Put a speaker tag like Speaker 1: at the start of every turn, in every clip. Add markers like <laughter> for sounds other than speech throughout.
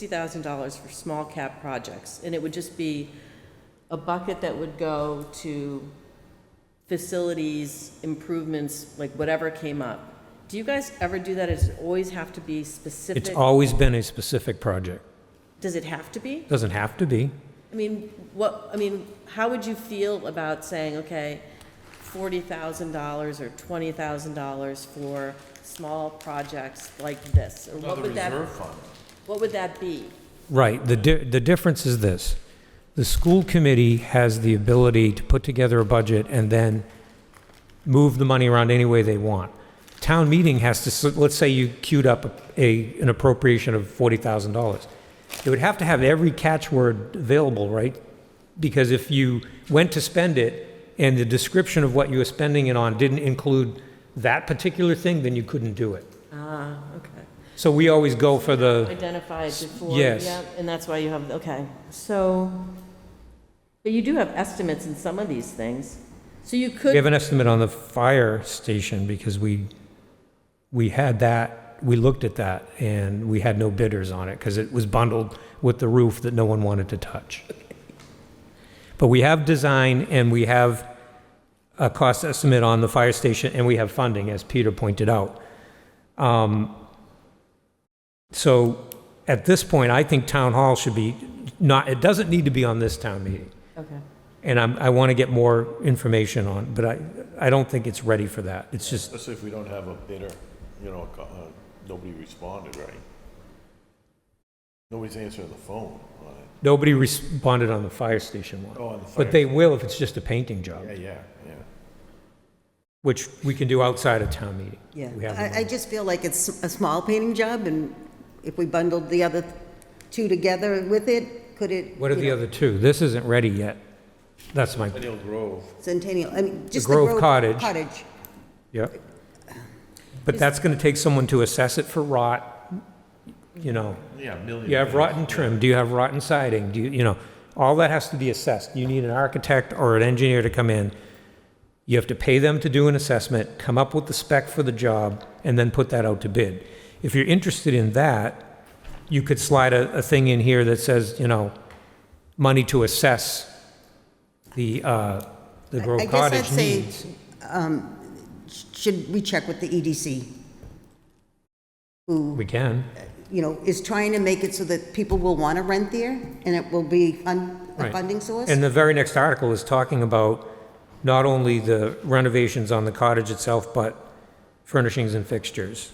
Speaker 1: $60,000 for small cap projects, and it would just be a bucket that would go to facilities, improvements, like whatever came up. Do you guys ever do that? Does it always have to be
Speaker 2: It's
Speaker 1: specific?
Speaker 2: always been a specific project.
Speaker 1: Does it have to be?
Speaker 2: Doesn't have to be.
Speaker 1: I mean, what, I mean, how would you feel about saying, okay, forty thousand dollars or twenty thousand dollars for small projects like this? Or what
Speaker 3: Another
Speaker 1: would that,
Speaker 3: reserve fund.
Speaker 1: what would that be?
Speaker 2: Right, the, di- the difference is this. The school committee has the ability to put together a budget and then move the money around any way they want. Town meeting has to, s- let's say you queued up a, an appropriation of $40,000. It would have to have every catchword available, right? Because if you went to spend it and the description of what you were spending it on didn't include that particular thing, then you couldn't do it.
Speaker 1: Ah, okay.
Speaker 2: So we always go for the.
Speaker 1: Identified before,
Speaker 2: yes.
Speaker 1: yeah, and that's why you have, okay, so, but you do have estimates in some of these things. So you
Speaker 2: We have
Speaker 1: could,
Speaker 2: an estimate on the fire station because we, we had that, we looked at that and we had no bidders on it because it was bundled with the roof that no one wanted to touch. But we have design and we have a cost estimate on the fire station and we have funding, as Peter pointed out. Um, So at this point, I think town hall should be not, it doesn't need to be on this town meeting.
Speaker 1: okay,
Speaker 2: And I'm, I want to get more information on, but I, I don't think it's ready for that. It's just,
Speaker 3: Especially if we don't have a bidder, you know, co- uh, nobody responded, right? Nobody's answering the phone on it.
Speaker 2: nobody responded on the fire station one.
Speaker 3: Oh, on the fire.
Speaker 2: But they will if it's just a painting job,
Speaker 3: Yeah, yeah, yeah.
Speaker 2: which we can do outside of town meeting. We
Speaker 4: Yeah,
Speaker 2: have the
Speaker 4: I, I
Speaker 2: money.
Speaker 4: just feel like it's a small painting job, and if we bundled the other two together with it, could it?
Speaker 2: What are
Speaker 4: you
Speaker 2: the
Speaker 4: know,
Speaker 2: other two? This isn't ready yet. That's my,
Speaker 3: Centennial Grove,
Speaker 4: Centennial, I mean, just the
Speaker 2: Grove
Speaker 4: Grove
Speaker 2: Cottage.
Speaker 4: Cottage.
Speaker 2: yeah. But that's going to take someone to assess it for rot, you know.
Speaker 3: yeah, million.
Speaker 2: You have rotten trim, do you have rotten siding, do you, you know, all that has to be assessed. You need an architect or an engineer to come in. You have to pay them to do an assessment, come up with the spec for the job, and then put that out to bid. If you're interested in that, you could slide a, a thing in here that says, you know, money to assess the, uh, the
Speaker 4: I
Speaker 2: Grove
Speaker 4: guess I'd
Speaker 2: Cottage
Speaker 4: say-
Speaker 2: needs.
Speaker 4: Should we check with the E EDC?
Speaker 2: We can,
Speaker 4: You know, is trying to make it so that people will want to rent there, and it will be fun- a
Speaker 2: Right.
Speaker 4: funding source?
Speaker 2: And the very next article is talking about not only the renovations on the cottage itself, but furnishings and fixtures.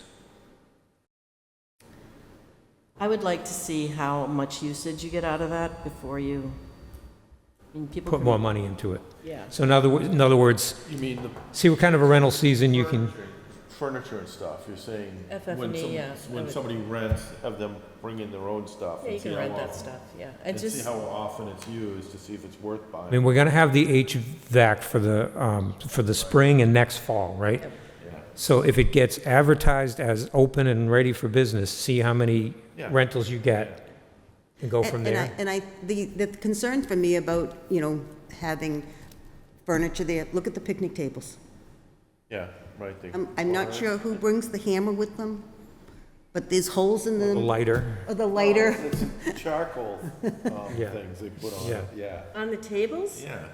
Speaker 1: I would like to see how much usage you get out of that before you, I mean, people.
Speaker 2: put
Speaker 1: can-
Speaker 2: more money into it.
Speaker 1: Yeah.
Speaker 2: So in other, wo- in other words,
Speaker 3: You mean the
Speaker 2: see what kind of a rental season you can,
Speaker 3: furniture and stuff, you're saying? when
Speaker 1: FF&E,
Speaker 3: some-
Speaker 1: E, yeah, I
Speaker 3: When
Speaker 1: would-
Speaker 3: somebody rents, have them bring in their own stuff.
Speaker 1: Yeah,
Speaker 3: and
Speaker 1: you
Speaker 3: see
Speaker 1: can
Speaker 3: how
Speaker 1: rent that
Speaker 3: often-
Speaker 1: stuff, yeah. I
Speaker 3: And see
Speaker 1: just,
Speaker 3: how often it's used, to see if it's worth
Speaker 2: I
Speaker 3: buying.
Speaker 2: mean, we're gonna have the HVAC for the, um, for the spring and next fall, right? So if it gets advertised as open and ready for business, see how many
Speaker 3: Yeah.
Speaker 2: rentals you get and go
Speaker 4: And-
Speaker 2: from
Speaker 4: and I-
Speaker 2: there.
Speaker 4: And I, the, the concern for me about, you know, having furniture there, look at the picnic tables.
Speaker 3: Yeah, right. they-
Speaker 4: I'm, I'm not sure who brings the hammer with them, but there's holes in
Speaker 2: The
Speaker 4: them,
Speaker 2: Lighter,
Speaker 4: or the lighter.
Speaker 3: It's Charcoal, um,
Speaker 2: <laughs> Yeah.
Speaker 3: things they put on
Speaker 2: Yeah.
Speaker 3: it, yeah.
Speaker 1: on the tables?
Speaker 3: Yeah.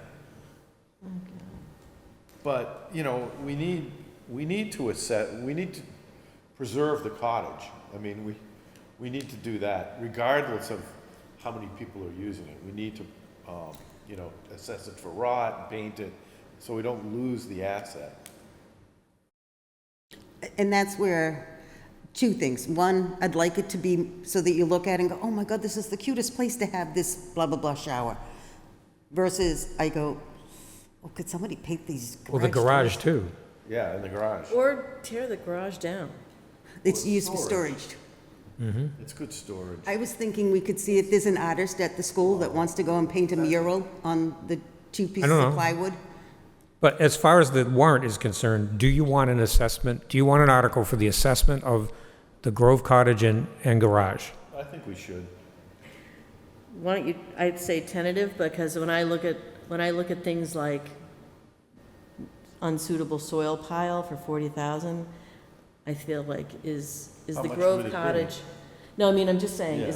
Speaker 3: But, you know, we need, we need to assess, we need to preserve the cottage. I mean, we, we need to do that regardless of how many people are using it. We need to, um, you know, assess it for rot, paint it, so we don't lose the asset.
Speaker 4: And that's where, two things. One, I'd like it to be so that you look at it and go, oh my God, this is the cutest place to have this blah, blah, blah shower. Versus I go, oh, could somebody paint these
Speaker 2: well, the garage
Speaker 4: garage doors?"
Speaker 2: too.
Speaker 3: Yeah, in the garage.
Speaker 1: Or tear the garage down.
Speaker 4: It's used for
Speaker 3: Storage.
Speaker 4: storage.
Speaker 3: It's good storage.
Speaker 4: I was thinking we could see if there's an artist at the school that wants to go and paint a mural on the two pieces
Speaker 2: don't
Speaker 4: of
Speaker 2: know.
Speaker 4: plywood.
Speaker 2: But as far as the warrant is concerned, do you want an assessment, do you want an article for the assessment of the Grove Cottage and, and garage?
Speaker 3: I think we should.
Speaker 1: Why don't you, I'd say tentative, because when I look at, when I look at things like unsuitable soil pile for forty thousand, I feel like is, is
Speaker 3: How
Speaker 1: the
Speaker 3: much
Speaker 1: Grove
Speaker 3: would it be?
Speaker 1: Cottage. No, I mean, I'm just saying,
Speaker 3: Yeah.
Speaker 1: is